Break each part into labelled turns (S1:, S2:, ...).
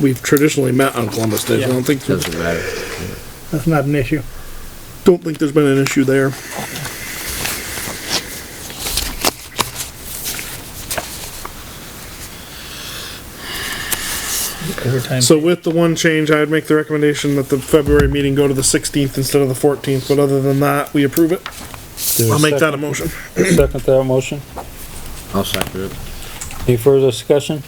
S1: we've traditionally met on Columbus Day, so I don't think, there's-
S2: Doesn't matter.
S3: That's not an issue.
S1: don't think there's been an issue there.
S3: Every time.
S1: So with the one change, I would make the recommendation that the February meeting go to the sixteenth instead of the fourteenth, but other than that, we approve it. I'll make that a motion.
S4: Second to that motion.
S2: I'll second it.
S4: Any further discussion?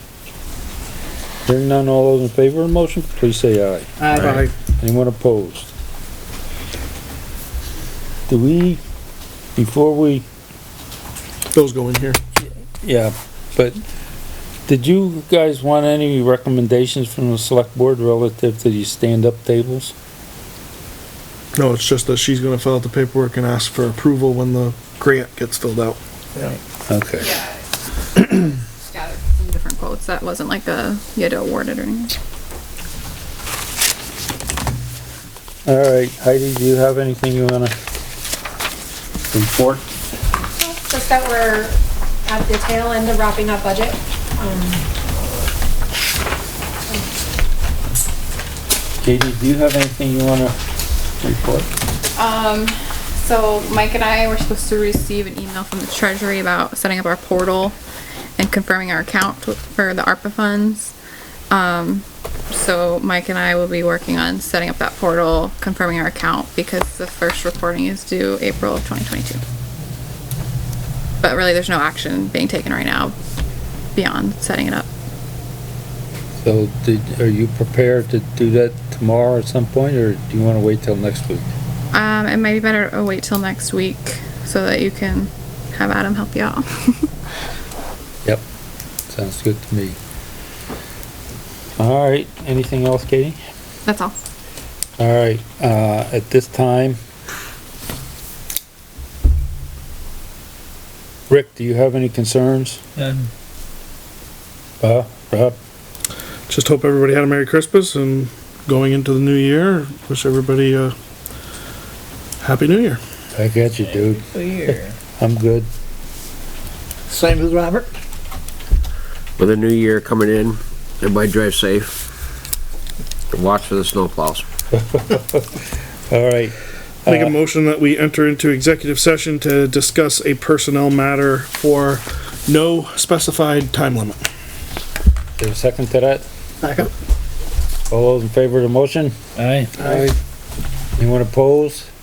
S4: Hearing none, all those in favor of the motion, please say aye.
S1: Aye.
S4: Anyone opposed? Do we, before we,
S1: Those go in here.
S4: yeah, but did you guys want any recommendations from the select board relative to these stand-up tables?
S1: No, it's just that she's gonna fill out the paperwork and ask for approval when the grant gets filled out.
S4: Okay.
S5: Got it from different quotes. That wasn't like a, you had to award it or anything.
S4: All right, Heidi, do you have anything you wanna report?
S6: just that we're at the tail end of wrapping up budget. Um,
S4: Katie, do you have anything you wanna report?
S5: Um, So Mike and I were supposed to receive an email from the treasury about setting up our portal and confirming our account for the ARPA funds. Um, so Mike and I will be working on setting up that portal, confirming our account because the first reporting is due April of twenty twenty-two. But really, there's no action being taken right now beyond setting it up.
S4: So did, are you prepared to do that tomorrow at some point, or do you wanna wait till next week?
S5: Um, it might be better to wait till next week so that you can have Adam help you out.
S4: Yep, sounds good to me. All right, anything else, Katie?
S5: That's all.
S4: All right, uh, at this time, Rick, do you have any concerns?
S3: None.
S4: Uh, Rob?
S1: Just hope everybody had a Merry Christmas and going into the new year, wish everybody a Happy New Year.
S4: I got you, dude.
S3: Year.
S4: I'm good.
S3: Same as Robert?
S2: With a new year coming in, everybody drive safe. Watch for the snowplows.
S4: All right,
S1: Make a motion that we enter into executive session to discuss a personnel matter for no specified time limit.
S4: there's a second to that?
S1: Second.
S4: All those in favor of the motion?
S3: Aye.
S4: Anyone opposed?